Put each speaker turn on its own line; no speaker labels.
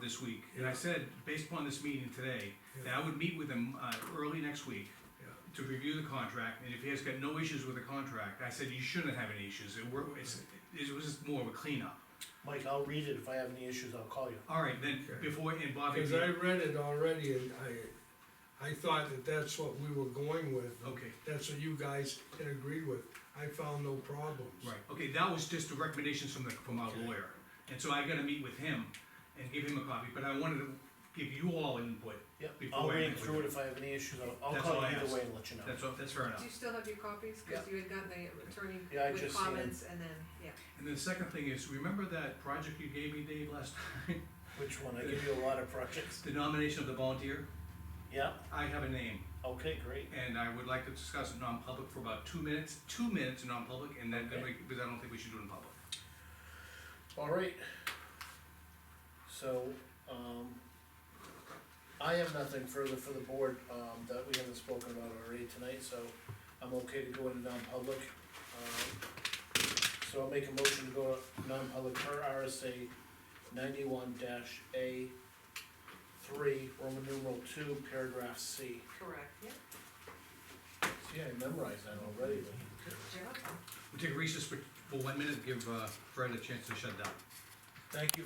this week, and I said, based upon this meeting today, that I would meet with him, uh, early next week
Yeah.
to review the contract, and if he has got no issues with the contract, I said, you shouldn't have any issues, it were, it's, it was just more of a cleanup.
Mike, I'll read it, if I have any issues, I'll call you.
All right, then,
Okay.
before, and Bobby,
Cause I read it already and I, I thought that that's what we were going with.
okay,
That's what you guys had agreed with. I found no problems.
right, okay, that was just the recommendations from the, from our
Okay.
lawyer, and so I gotta meet with him and give him a copy, but I wanted to give you all input,
Yep, I'll
Before I
read
meet with
through it,
him.
if I have any issues, I'll, I'll
That's
call
all
you
I
either
asked.
way and let you know.
that's, all- that's fair enough.
Do you still have your copies? Cause
Yeah.
you had gotten the attorney
Yeah, I
with
just seen 'em.
comments and then, yeah.
And then the second thing is, remember that project you gave me, Dave, last time?
Which one, I give you a lot of projects.
The nomination of the volunteer?
Yeah,
I have a name,
okay, great,
and I would like to discuss it non-public for about two minutes, two minutes in non-public, and then, then we- because I don't think we should do it in public.
all right. So, um, I have nothing further for the board, um, that we haven't spoken about already tonight, so I'm okay to go into non-public. Um, So I'll make a motion to go non-public per RSA ninety-one dash A three, Roman numeral two, paragraph C.
Correct, yeah.
See, I memorized that already, but.
Yeah.
We'll take a recess for, for one minute, give uh, Fred a chance to shut down.
Thank you